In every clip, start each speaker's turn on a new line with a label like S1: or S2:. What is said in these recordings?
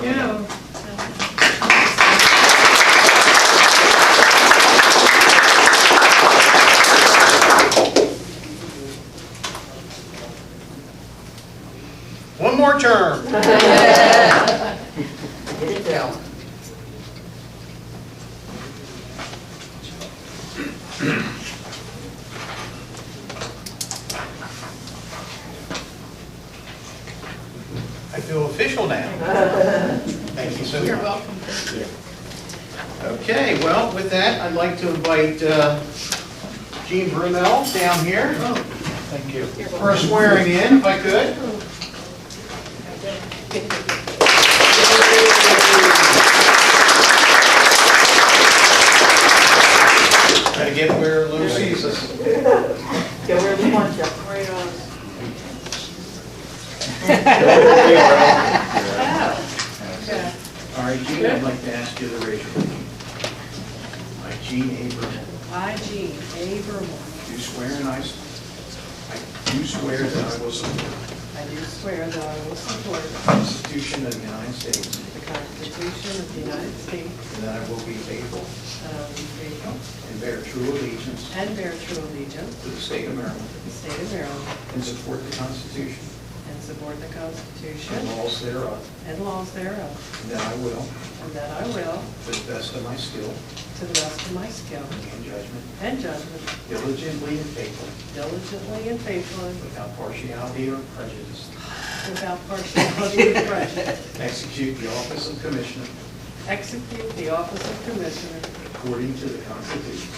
S1: Yeah.
S2: One more term.
S3: Get it down.
S2: I feel official now. Thank you so much.
S1: You're welcome.
S2: Okay, well, with that, I'd like to invite uh, Jean Brunel down here. Thank you. For a swearing in, if I could. Try to get where Lou sees us.
S3: Go wherever you want to.
S1: Yeah.
S2: All right, Jean, I'd like to ask you to raise your hand. I, Jean Abraham,
S1: I, Jean A. Vermillion,
S2: do swear and I, I do swear that I will support
S1: I do swear that I will support
S2: the Constitution of the United States
S1: the Constitution of the United States,
S2: and that I will be faithful
S1: and I will be faithful
S2: and bear true allegiance
S1: and bear true allegiance
S2: to the state of Maryland
S1: to the state of Maryland,
S2: and support the Constitution
S1: and support the
S2: and
S1: Constitution
S2: laws thereof,
S1: and laws thereof,
S2: and that I will,
S1: and that I will,
S2: to the best of my skill
S1: to the best of my skill
S2: and judgment,
S1: and judgment,
S2: diligently and faithfully,
S1: diligently and faithfully,
S2: without partiality or prejudice,
S1: without partiality or prejudice,
S2: execute the office of Commissioner
S1: execute the office of Commissioner
S2: according to the Constitution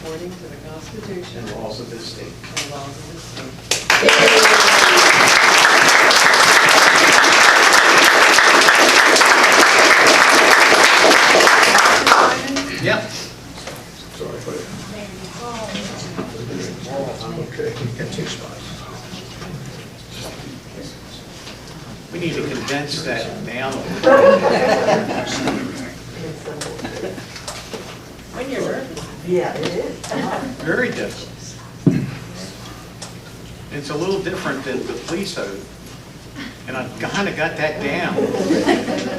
S1: according to the Constitution
S2: and
S1: and
S2: laws of this state.
S1: laws of this state.
S2: Yep.
S4: Sorry, but. Okay, you got two spots.
S2: We need to condense that down.
S1: When you're nervous.
S3: Yeah, it is.
S2: Very difficult. It's a little different than the police oath, and I kind of got that down.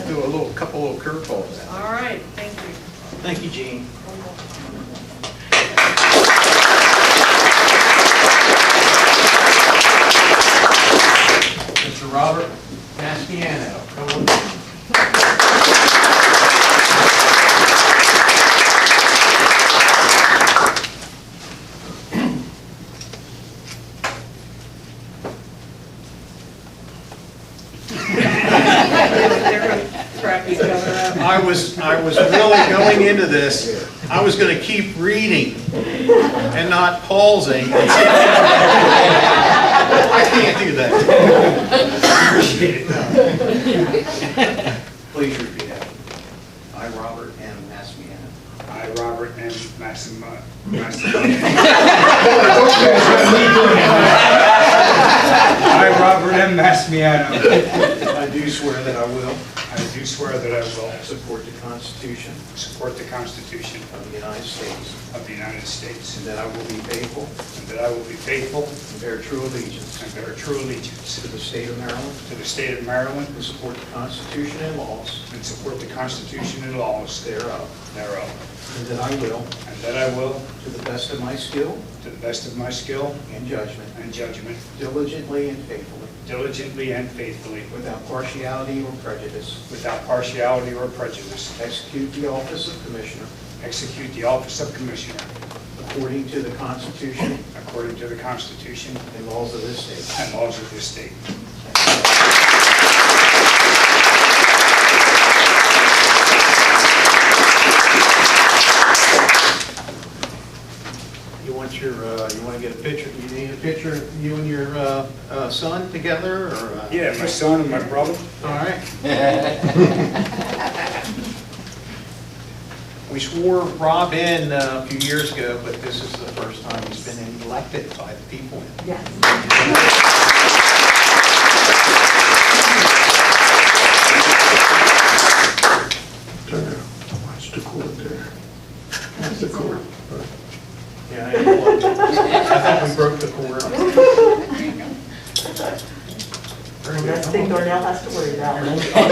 S2: Do a little, couple little curveballs.
S1: All right, thank you.
S2: Thank you, Gene. Mr. Robert Mastiano, come on down.
S1: Wrap each other up.
S2: I was, I was really going into this, I was gonna keep reading and not pausing. I can't do that. Please repeat after me. I, Robert M. Massimiano.
S5: I, Robert uh, M. Massimo, Massimo. I, Robert M. Massimiano,
S2: I do swear that I will
S5: I do swear that I will
S2: support the Constitution
S5: support the Constitution
S2: of the United States,
S5: of the United States,
S2: and that I will be faithful
S5: and that I will be faithful
S2: and bear true allegiance
S5: and bear true
S2: to
S5: allegiance
S2: the state of Maryland,
S5: to the state of Maryland,
S2: and support the Constitution and laws
S5: and support the Constitution and laws
S2: thereof,
S5: thereof,
S2: and that I will
S5: and that I will,
S2: To the best of my skill
S5: to the best of my skill
S2: and judgment,
S5: and judgment,
S2: diligently and faithfully,
S5: diligently and faithfully,
S2: without partiality or prejudice,
S5: without partiality or prejudice,
S2: execute the office of Commissioner
S5: execute the office of Commissioner
S2: according to the Constitution
S5: According to the Constitution
S2: and laws of this state.
S5: and laws of this state.
S2: You want your, uh, you want to get a picture, you need a picture of you and your uh, uh, son together, or? uh,
S5: Yeah, my son and my brother.
S2: All right. We swore Rob in uh, a few years ago, but this is the first time he's been elected by the people.
S3: Yes.
S4: Turn around. Watch the court there. That's the court.
S2: Yeah, I thought we broke the quorum.
S3: And that's the thing Darnell has to worry about.